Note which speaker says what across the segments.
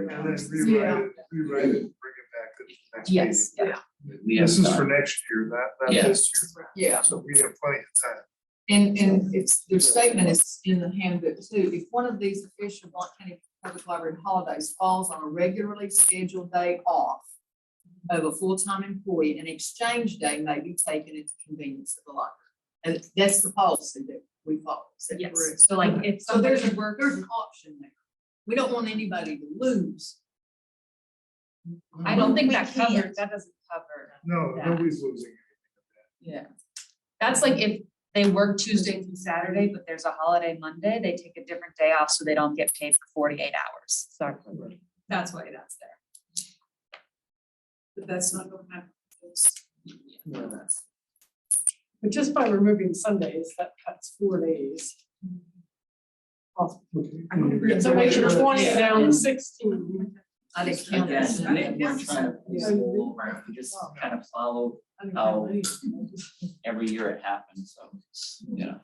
Speaker 1: And then
Speaker 2: rounds.
Speaker 1: rewrite it, rewrite it, bring it back to the next meeting.
Speaker 2: Yes, yeah,
Speaker 3: We have
Speaker 1: This is
Speaker 3: time.
Speaker 1: for next year, that, that
Speaker 3: Yeah.
Speaker 1: is,
Speaker 2: yeah.
Speaker 1: so we have plenty of time.
Speaker 2: And, and it's, their statement is in the handbook too. If one of these official Blount County Public Library holidays falls on a regularly scheduled day off of a full-time employee, an exchange day may be taken at the convenience of the library. And that's the policy that we follow. Is that
Speaker 4: Yes,
Speaker 2: correct?
Speaker 4: so like if
Speaker 2: So
Speaker 4: somebody
Speaker 2: there's a, there's an option there. We don't want anybody to lose. Mm-hmm.
Speaker 4: I don't think
Speaker 5: We
Speaker 4: that covers, that doesn't cover.
Speaker 1: No,
Speaker 4: that.
Speaker 1: nobody's losing.
Speaker 2: Yeah.
Speaker 4: That's like if they work Tuesday through Saturday, but there's a holiday Monday, they take a different day off, so they don't get paid for forty-eight hours. Sorry. That's why that's there.
Speaker 2: But that's not gonna happen.
Speaker 6: But just by removing Sundays, that cuts four days.
Speaker 1: anything.
Speaker 6: So make sure twenty
Speaker 2: Yeah.
Speaker 6: down to sixteen.
Speaker 2: I didn't count that.
Speaker 3: Again, I think we're trying to
Speaker 6: Yeah.
Speaker 3: pull around, we just kind of follow how every year it happens, so, you know.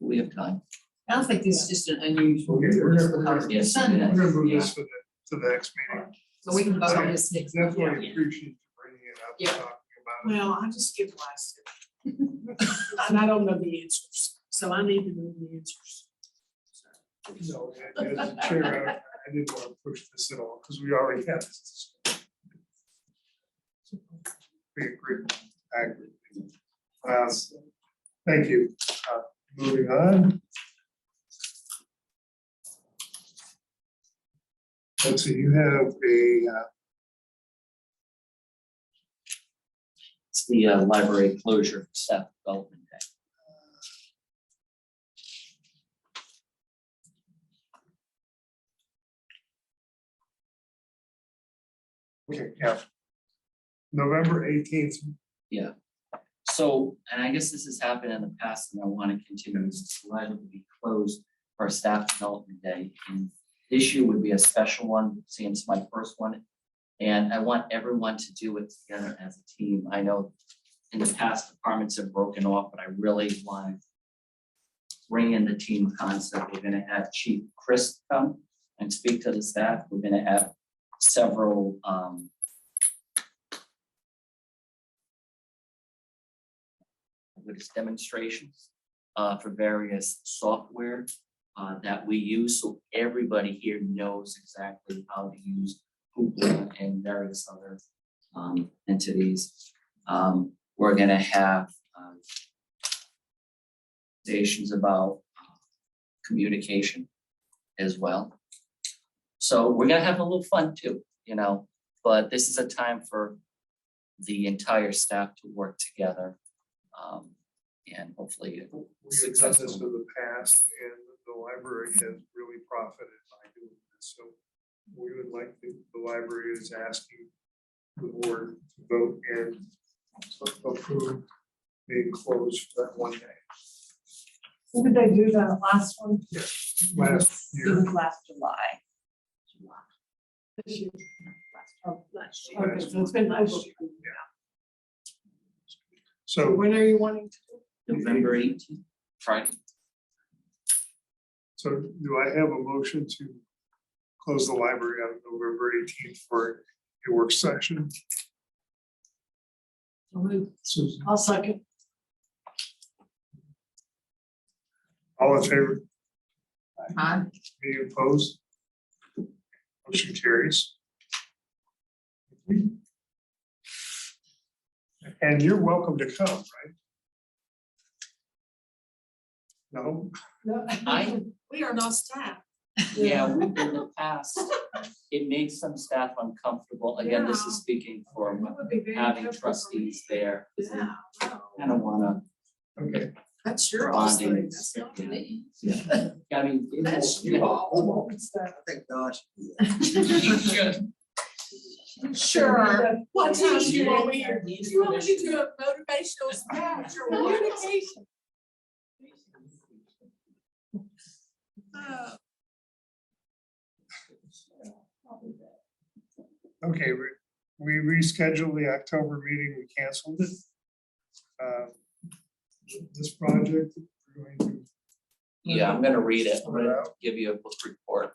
Speaker 3: We have time.
Speaker 2: I don't think this is just an unusual.
Speaker 1: Okay, we're gonna- we're gonna-
Speaker 2: It's
Speaker 1: We're
Speaker 2: Sunday,
Speaker 1: gonna move this to the, to the next meeting.
Speaker 2: So we can vote on this next.
Speaker 1: That's why I
Speaker 2: Yeah.
Speaker 1: appreciate you bringing it up, and
Speaker 2: Yeah.
Speaker 1: talking about
Speaker 6: Well, I just give last. And I don't know the answers, so I need to know the answers.
Speaker 1: it. So, and as a chair, I I didn't want to push this at all, because we already had this. We agree, I agree. Uh, Thank you. Uh, Moving on. Let's see, you have a, uh,
Speaker 3: It's the uh, library closure for staff development day.
Speaker 1: okay, yeah. November eighteenth,
Speaker 3: So, and I guess this has happened in the past and I want to continue, this is liable to be closed for a staff development day. And This year would be a special one, seeing it's my first one. And I want everyone to do it together as a team. I know in the past departments have broken off, but I really want to bring in the team concept. We're gonna have Chief Chris come and speak to the staff. We're gonna have several, um, with its demonstrations uh, for various software uh, that we use, so everybody here knows exactly how to use Hoopla and various other um, entities. Um, We're gonna have um, stations about uh, communication as well. So we're gonna have a little fun too, you know, but this is a time for the entire staff to work together um, and hopefully it will.
Speaker 1: we have done this in the past, and the library has really profited by doing this, so we would like, to- the library is asking the board to vote and approve being closed for that one day,
Speaker 6: Did they do that last one?
Speaker 1: last year.
Speaker 4: last July.
Speaker 6: This year? Oh, last year. Okay, so it's been last year. So
Speaker 1: So,
Speaker 6: when are you wanting to?
Speaker 3: November eighteenth, Friday.
Speaker 1: so do I have a motion to close the library on November eighteenth for a work session? Susan,
Speaker 6: I'll second.
Speaker 1: all in favor?
Speaker 2: Huh?
Speaker 1: Any opposed? Motion carries. And you're welcome to come, right? No,
Speaker 3: I-
Speaker 6: We are not staff.
Speaker 3: Yeah, we've been in the past. It makes some staff uncomfortable. Again, this is speaking for
Speaker 6: would be very
Speaker 3: having trustees there.
Speaker 6: Yeah,
Speaker 3: I don't wanna.
Speaker 1: okay,
Speaker 6: that's your
Speaker 3: Bonding.
Speaker 6: offering, that's not me.
Speaker 3: Yeah. I mean. it will-
Speaker 6: That's you all.
Speaker 7: Thank God.
Speaker 3: You should.
Speaker 6: Sure.
Speaker 2: What
Speaker 6: What
Speaker 2: time
Speaker 6: time you
Speaker 2: you
Speaker 6: want
Speaker 2: want
Speaker 6: me here?
Speaker 3: You want me to do
Speaker 6: a motivational speech or
Speaker 2: Communication.
Speaker 6: Uh,
Speaker 1: okay, we, we rescheduled the October meeting, we canceled it. Um, This project, we're going to
Speaker 3: Yeah, I'm gonna read it. I'm
Speaker 1: sort it
Speaker 3: gonna
Speaker 1: out.
Speaker 3: give you a book report.